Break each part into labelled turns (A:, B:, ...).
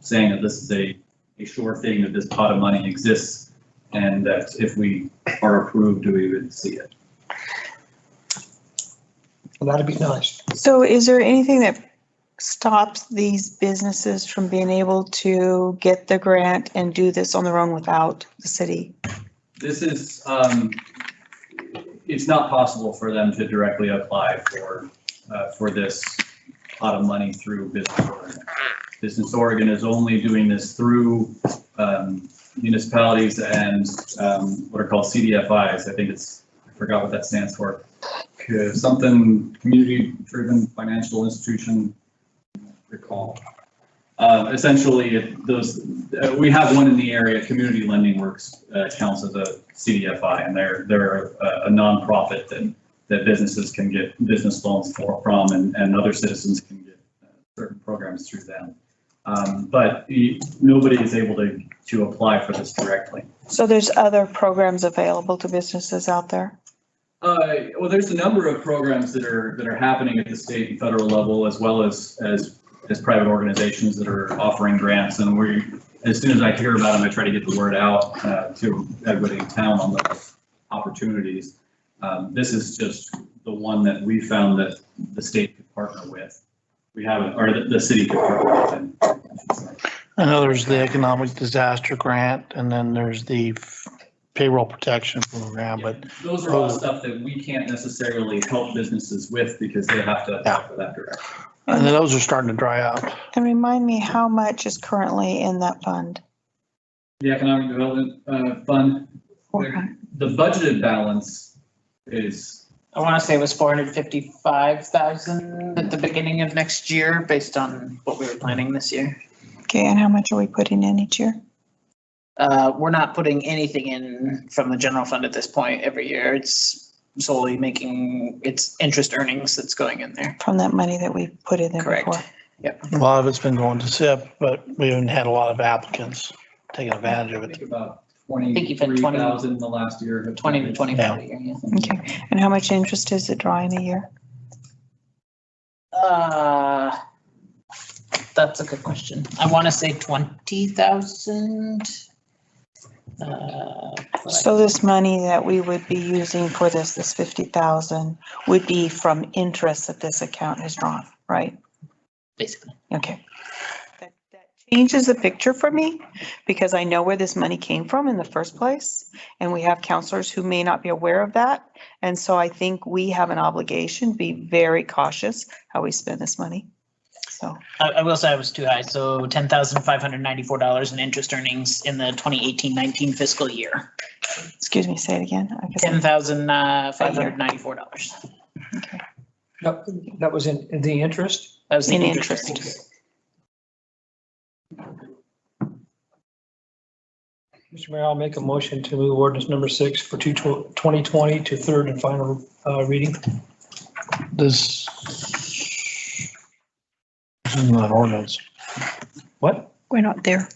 A: saying that this is a, a sure thing, that this pot of money exists, and that if we are approved, we would see it.
B: That'd be nice.
C: So is there anything that stops these businesses from being able to get the grant and do this on their own without the city?
A: This is, um, it's not possible for them to directly apply for, uh, for this pot of money through Business Oregon. Business Oregon is only doing this through, um, municipalities and, um, what are called CDFIs. I think it's, I forgot what that stands for. Uh, Something, community-driven financial institution, recall. Uh, essentially, it- those, uh, we have one in the area, Community Lending Works uh, counts as a CDFI, and they're, they're a a nonprofit that, that businesses can get business loans for, from, and, and other citizens can get uh, certain programs through them. Um, But y- nobody is able to, to apply for this directly.
C: So there's other programs available to businesses out there?
A: Uh, well, there's a number of programs that are, that are happening at the state and federal level as well as, as, as private organizations that are offering grants. And we, as soon as I hear about them, I try to get the word out, uh, to everybody in town on the opportunities. Um, this is just the one that we found that the state could partner with. We haven't, or the, the city could partner with. and-
D: I know there's the economic disaster grant and then there's the f- payroll protection program, but
A: Those are all stuff that we can't necessarily help businesses with because they have to apply for that directly.
D: and then those are starting to dry up.
C: And remind me how much is currently in that fund?
A: The Economic Development, uh, Fund
C: Okay.
A: The budgeted balance is,
E: I want to say it was four hundred fifty-five thousand at the beginning of next year, based on what we were planning this year.
C: Okay, and how much are we putting in each year?
E: Uh, we're not putting anything in from the general fund at this point every year. It's solely making, it's interest earnings that's going in there.
C: From that money that we put in there
E: Correct.
C: before?
D: A lot of it's been going to SIP, but we haven't had a lot of applicants taking advantage of
A: I
D: it.
A: think about
E: think you've had 20
A: twenty-three thousand the last year.
E: Twenty to twenty-five a year, yeah.
C: Okay, and how much interest is it drawing a year?
E: Uh, that's a good question. I want to say twenty thousand. uh,
C: So this money that we would be using for this, this fifty thousand, would be from interest that this account has drawn, right?
E: Basically.
C: Okay. That that Changes the picture for me because I know where this money came from in the first place. And we have counselors who may not be aware of that. And so I think we have an obligation, to be very cautious how we spend this money. So,
E: I, I will say I was too high, so ten thousand five hundred ninety-four dollars in interest earnings in the 2018-19 fiscal year.
C: excuse me, say it again. I guess
E: Ten
C: I'm-
E: thousand uh, five hundred ninety-four dollars.
B: That, that was in, in the interest?
E: That was the
C: In
E: interest.
C: interest.
E: earnings.
B: Mr. Mayor, I'll make a motion to move ordinance number six for two tw- 2020 to third and final uh, reading.
D: This this is not ordinance.
B: What?
F: We're not there.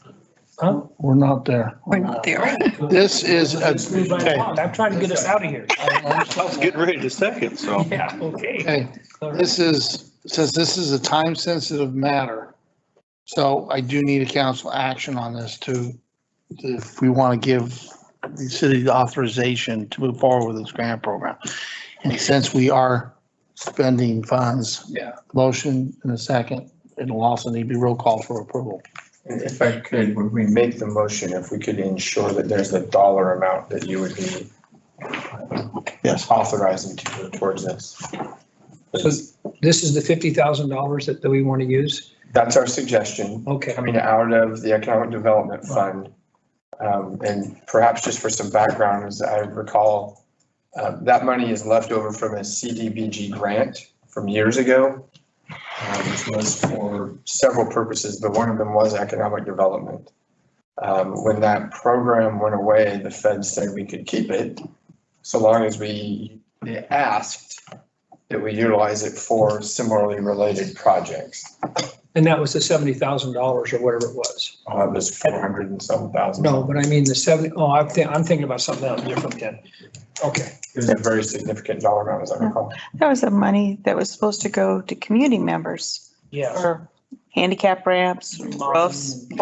B: Huh?
D: We're not there.
F: We're not there.
D: This is, a-
B: Let's move right
D: okay,
B: along. I'm trying to get us out of here.
G: I was getting ready to second, so.
B: Yeah, okay.
D: okay.
B: All right.
D: This is, since this is a time-sensitive matter, so I do need a council action on this to, if we want to give the city the authorization to move forward with this grant program. And since we are spending funds.
H: Yeah.
D: Motion in a second, it'll also need to be roll call for approval.
H: If I could, when we make the motion, if we could ensure that there's a dollar amount that you would be uh,
D: Yes.
H: authorizing to go towards this.
B: So this is the $50,000 that, that we want to use?
H: That's our suggestion,
B: Okay.
H: coming out of the Economic Development Fund. Um, and perhaps just for some background, as I recall, uh, that money is left over from a CDBG grant from years ago, uh, which was for several purposes, but one of them was economic development. Um, when that program went away, the Fed said we could keep it so long as we they asked that we utilize it for similarly related projects.
B: And that was the $70,000 or whatever it was.
H: Uh, it was four hundred and some thousand.
B: No, but I mean the 70, oh, I'm thinking, I'm thinking about something else different then. Okay.
H: It was a very significant dollar amount, as I recall.
C: That was the money that was supposed to go to community members
B: Yeah.
C: for handicap ramps, roofs,